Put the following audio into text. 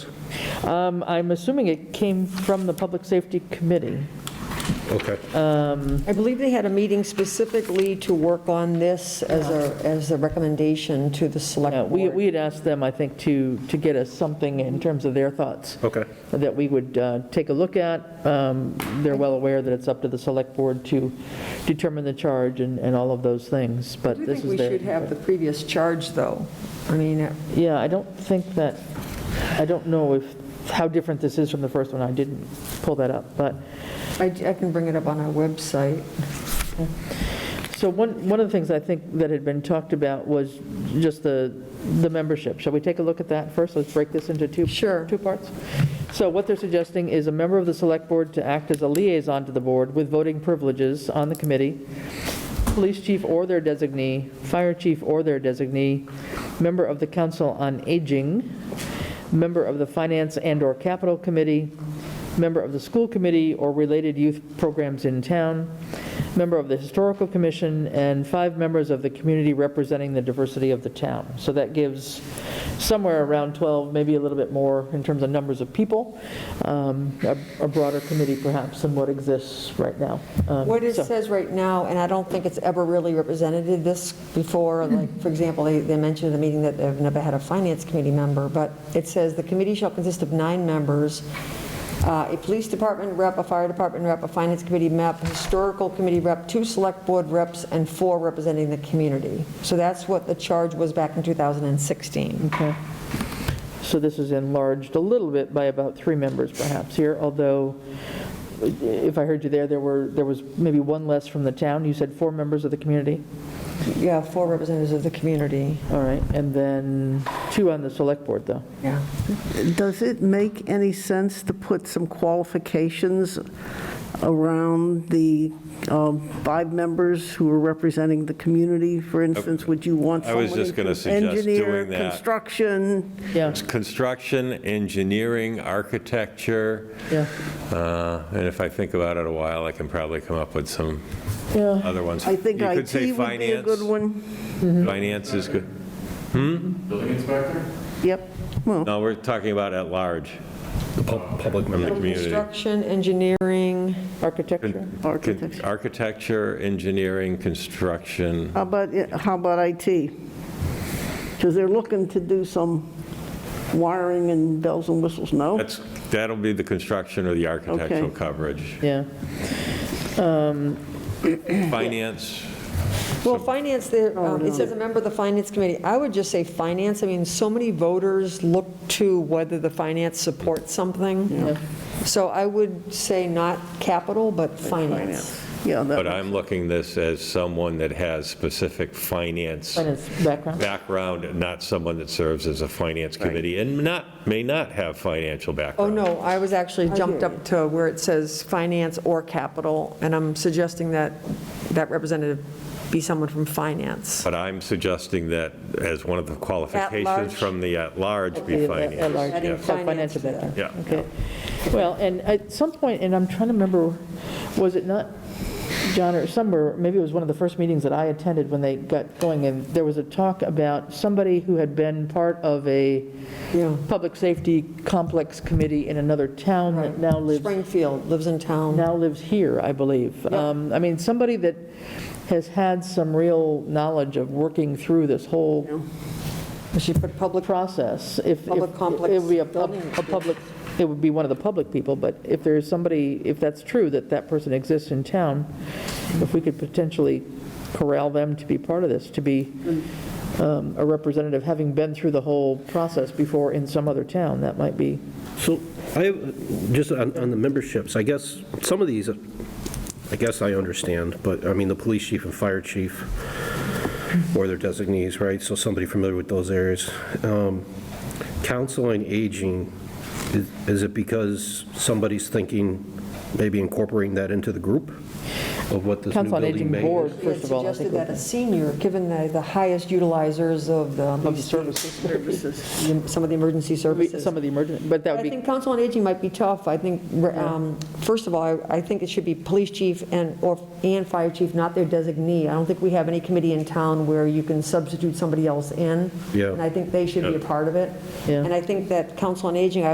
Um, I'm assuming it came from the Public Safety Committee. Okay. I believe they had a meeting specifically to work on this as a, as a recommendation to the Uh, select We board. we had asked them, I think, to, to get us something in terms of their thoughts Okay. that we would uh, take a look at. Um, They're well aware that it's up to the Select Board to determine the charge and, and all of those things, I but do this think is we their- should have the previous charge, though. I mean, it- Yeah, I don't think that, I don't know if, how different this is from the first one. I didn't pull that up, but, I I can bring it up on our website. so one, one of the things I think that had been talked about was just the, the membership. Shall we take a look at that first? Let's break this into two. Sure. Two parts. So what they're suggesting is a member of the select board to act as a liaison to the board with voting privileges on the committee, police chief or their designee, fire chief or their designee, member of the council on aging, member of the finance and/or capital committee, member of the school committee or related youth programs in town, member of the historical commission, and five members of the community representing the diversity of the town. So that gives somewhere around 12, maybe a little bit more in terms of numbers of people, um, a a broader committee perhaps than what exists right now. Um, What it so- says right now, and I don't think it's ever really represented this before, like, for example, they, they mentioned at the meeting that they've never had a finance committee member, but it says the committee shall consist of nine members, uh, a police department rep, a fire department rep, a finance committee rep, historical committee rep, two select board reps, and four representing the community. So that's what the charge was back in 2016. Okay. So this is enlarged a little bit by about three members perhaps here, although if I heard you there, there were, there was maybe one less from the town. You said four members of the community? Yeah, four representatives of the community. All right, and then two on the select board though. Yeah. Does it make any sense to put some qualifications around the um, five members who are representing the community? For instance, would you want I someone... was just gonna who- suggest Engineer, doing that. construction, Yeah, Construction, engineering, architecture, yeah, uh, and if I think about it a while, I can probably come up with some yeah. other ones. I think You could say IT would be a good finance. one. Mm-hmm. Finance is good. Building inspector? Yep, well, No, we're talking about at large, The pub- public the member. community. Construction, engineering, Architecture, architecture. Architecture, engineering, construction. How about, it- how about IT? Because they're looking to do some wiring and bells and whistles, no? That's, that'll be the construction or the architectural Okay. coverage. yeah. Finance, Well, finance, there, um, it says a member of the finance committee. I would just say finance, I mean, so many voters look to whether the finance supports something. So I would say not capital, but finance. Yeah, but that, I'm looking this as someone that has specific finance Finance background, background, and not someone that serves as a finance committee, and not, may not have financial Oh, background. no, I was actually jumped up to where it says finance or capital, and I'm suggesting that that representative be someone from finance. But I'm suggesting that as one of the large? qualifications from the at-large Okay, be at- at finance. large. yeah. Finance. so financial background. Yeah. Okay. Well, and at some point, and I'm trying to remember, was it not, John, or somewhere, maybe it was one of the first meetings that I attended when they got going, and there was a talk about somebody who had been part of a Yeah. public safety complex committee in another town that now lives Springfield, lives in town. now lives here, I believe. Um, I mean, somebody that has had some real knowledge of working through this whole She put public, process. If- if- Public complex It would be a pub- building a public, it would be one of the public people, but if there's somebody, if that's true, that that person exists in town, if we could potentially corral them to be part of this, to be um, a representative, having been through the whole process before in some other town, that might be, So I, have- just on on the memberships, I guess, some of these, I guess I understand, but I mean, the police chief and fire chief, or their designees, right? So somebody familiar with those areas. Um, Council on Aging, is- is it because somebody's thinking maybe incorporating that into the group of what this new Council on building Aging may? Board, she had first of all. I suggested think that a senior, given the the highest utilizers of the. would be services. some of the emergency services. Some of the emergency, but that I would be, think council on aging might be tough. I think, um, first of all, I- I think it should be police chief and, or, and fire chief, not their designee. I don't think we have any committee in town where you can substitute somebody else in. Yeah. And I think they should be a part of it. Yeah. And I think that council on aging, I